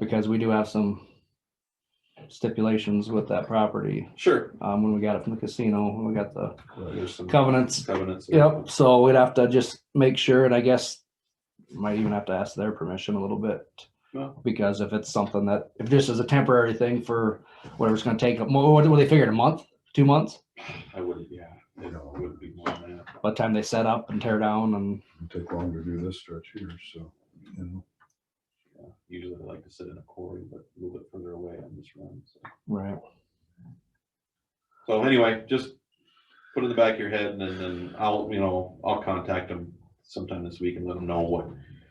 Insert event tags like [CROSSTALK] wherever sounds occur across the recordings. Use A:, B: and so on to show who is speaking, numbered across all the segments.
A: because we do have some stipulations with that property,
B: Sure.
A: um, when we got it from the casino, when we got the
B: There's some
A: covenants.
B: Covenants.
A: Yep, so we'd have to just make sure, and I guess might even have to ask their permission a little bit.
B: Well.
A: Because if it's something that, if this is a temporary thing for whatever it's gonna take, what, what they figured, a month, two months?
B: I wouldn't, yeah, it would be more than that.
A: By the time they set up and tear down and,
C: It'd Take long to do this stretch here, so, you know,
B: Yeah. Usually I like to sit in a quarry, but a little bit further away on this run. so.
A: right,
B: So anyway, just put it in the back of your head and then, then I'll, you know, I'll contact them sometime this week and let them know what,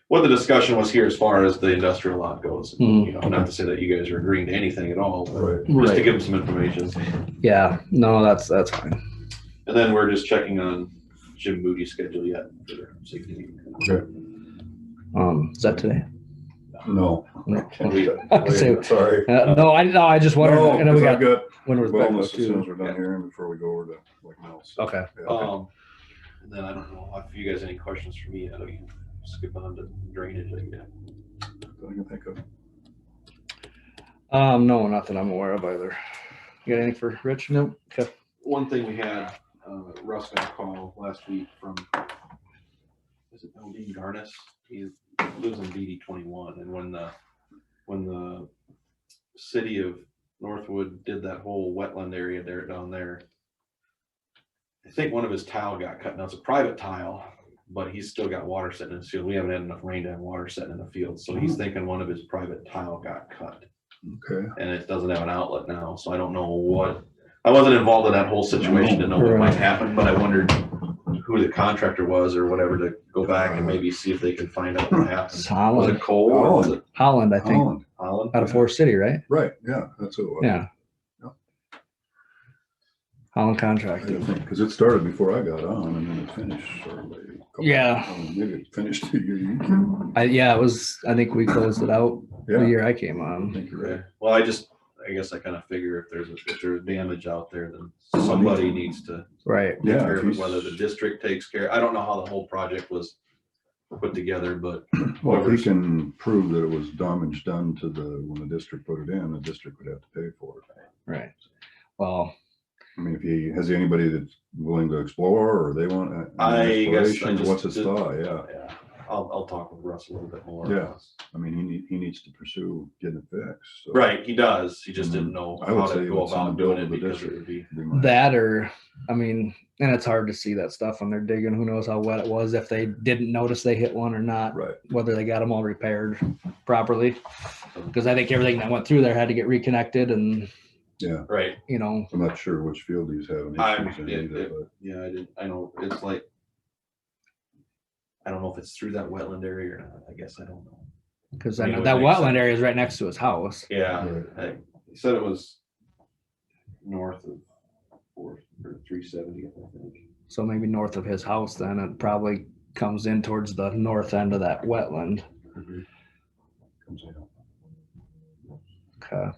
B: what the discussion was here as far as the industrial lot goes.
A: Mhm.
B: You know, not to say that you guys are agreeing to anything at all, but
C: right,
B: just to
A: right,
B: give them some information.
A: yeah, no, that's, that's fine,
B: And then we're just checking on Jim Moody's schedule yet. for their safety meeting.
C: Okay.
A: um, is that [LAUGHS] today?
C: no.
A: No.
B: And we-
A: could say-
C: Wait, Sorry.
A: Uh, no, I, no, I just wondered,
C: No,
A: and then we
C: 'cause I've
A: got,
C: got
A: when was back
C: wellness as soon
A: too.
C: as we're done here and before we go over to like else.
A: Okay,
B: Um, and then I don't know if you guys have any questions for me, I know you can skip on to drainage. I guess.
C: I can think of,
A: um, no, nothing I'm aware of either. You got anything for Rich? No. Okay,
B: One thing we had, uh, Russ got a call last week from, is it LD Garnis? He lives in DD twenty-one and when the, when the city of Northwood did that whole wetland area there down there. I think one of his tile got cut. Now it's a private tile, but he's still got water sitting in his field. We haven't had enough rain to have water sitting in the field. So he's thinking one of his private tile got cut
C: okay.
B: and it doesn't have an outlet now, so I don't know what, I wasn't involved in that whole situation to know what might happen, but I wondered who the contractor was or whatever to go back and maybe see if they can find out what happened.
C: [LAUGHS]
A: it's
B: Was
A: Holland,
B: it Cole or was it
A: Holland, I think,
C: Holland,
B: Holland?
A: out of Forest City, right?
C: Right, yeah, that's what it was.
A: Yeah.
C: Yep.
A: Holland
C: I didn't
A: contracted.
C: think, Cause it started before I got on and then it finished. or like a couple-
A: Yeah.
C: I mean, Oh, Maybe it finished [LAUGHS] two years. I
A: I, yeah, it was, I think we closed it out the
C: Yeah.
A: year I came
C: I
A: on.
C: think you're right.
B: Okay. Well, I just, I guess I kind of figure if there's, if there's damage out there, then somebody needs to
A: Right.
B: take
C: Yeah,
B: care
C: if
B: of it,
C: he's-
B: whether the district takes care, I don't know how the whole project was put together, but
C: Well, if
B: whoever's-
C: he can prove that it was damage done to the, when the district put it in, the district would have to pay for it.
A: Right. Well,
C: I mean, if he, has anybody that's willing to explore or they want. a- an
B: I guess I
C: exploration,
B: just
C: What's his
B: did-
C: thought? Yeah.
B: uh, yeah, I'll, I'll talk with Russ a little bit more.
C: Yeah. I mean, he need, he needs to pursue getting it fixed. so
B: Right, he does, he just didn't know
C: I would
B: how
C: say
B: to go
C: it's in the
B: about
C: bill
B: doing it
C: of the
B: because it
C: district.
B: would be.
C: be my-
A: that or, I mean, and it's hard to see that stuff when they're digging. Who knows how wet it was, if they didn't notice they hit one or not,
C: Right,
A: whether they got them all repaired properly. Cause I think everything that went through there had to get reconnected and,
C: yeah.
B: Right,
A: you know,
C: I'm not sure which field he's having
B: I'm-
C: issues in
B: it-
C: either,
B: it-
C: but
B: yeah, I didn't, I know, it's like. I don't know if it's through that wetland area or not, I guess, I don't know.
A: cause I
B: Yeah, it
A: know
B: would
A: that
B: make sense.
A: wetland area is right next to his house.
B: Yeah,
C: Right.
B: I, he said it was north of four, or three seventy, I think.
A: So maybe north of his house, then it probably comes in towards the north end of that wetland.
C: comes out.
A: Okay.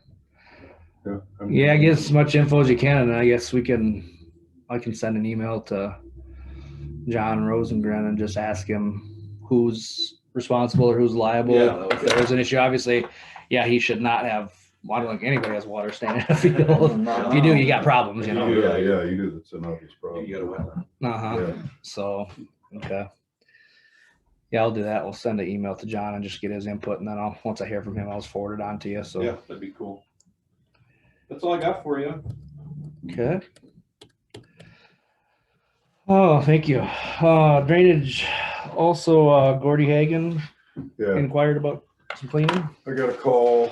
C: Yeah, I'm-
A: Yeah, get as much info as you can, and I guess we can, I can send an email to John Rosengren and just ask him who's responsible or who's
B: Yeah,
A: liable. If
B: that would be-
A: there is an issue, obviously, yeah, he should not have, well, I don't think anybody has water staying in a field. [LAUGHS] If you do, you got problems, you know?
C: Yeah, yeah, you do, that's an obvious problem.
B: You got a wetland.
A: Uh-huh,
C: Yeah,
A: so, okay. Yeah, I'll do that. We'll send an email to John and just get his input, and then I'll, once I hear from him, I'll just forward it on to you, so.
B: Yeah, that'd be cool. That's all I got for you.
A: Okay. Oh, thank you. Uh, drainage, also, uh, Gordy Hagan
C: yeah.
A: inquired about some cleaning.
C: I got a call, I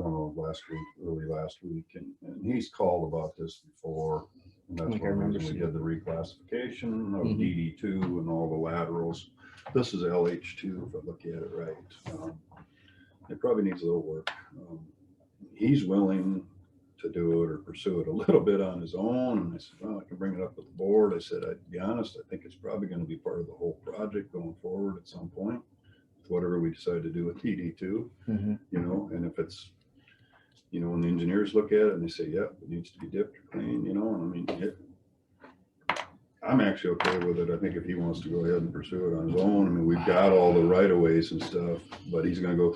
C: don't know, last week, early last week, and, and he's called about this before. And that's
A: I
C: one
A: think I remember
C: reason we
A: seeing
C: did the reclassification of
A: Mhm.
C: DD two and all the laterals. This is LH two, if I look at it right. Um, It probably needs a little work. Um, He's willing to do it or pursue it a little bit on his own, and I said, well, I can bring it up with the board. I said, I'd be honest, I think it's probably gonna be part of the whole project going forward at some point. Whatever we decide to do with DD two you know, and if it's, you know, when the engineers look at it and they say, yep, it needs to be dipped or cleaned, you know, and I mean, it. I'm actually okay with it. I think if he wants to go ahead and pursue it on his own, I mean, we've got all the right of ways and stuff, but he's gonna go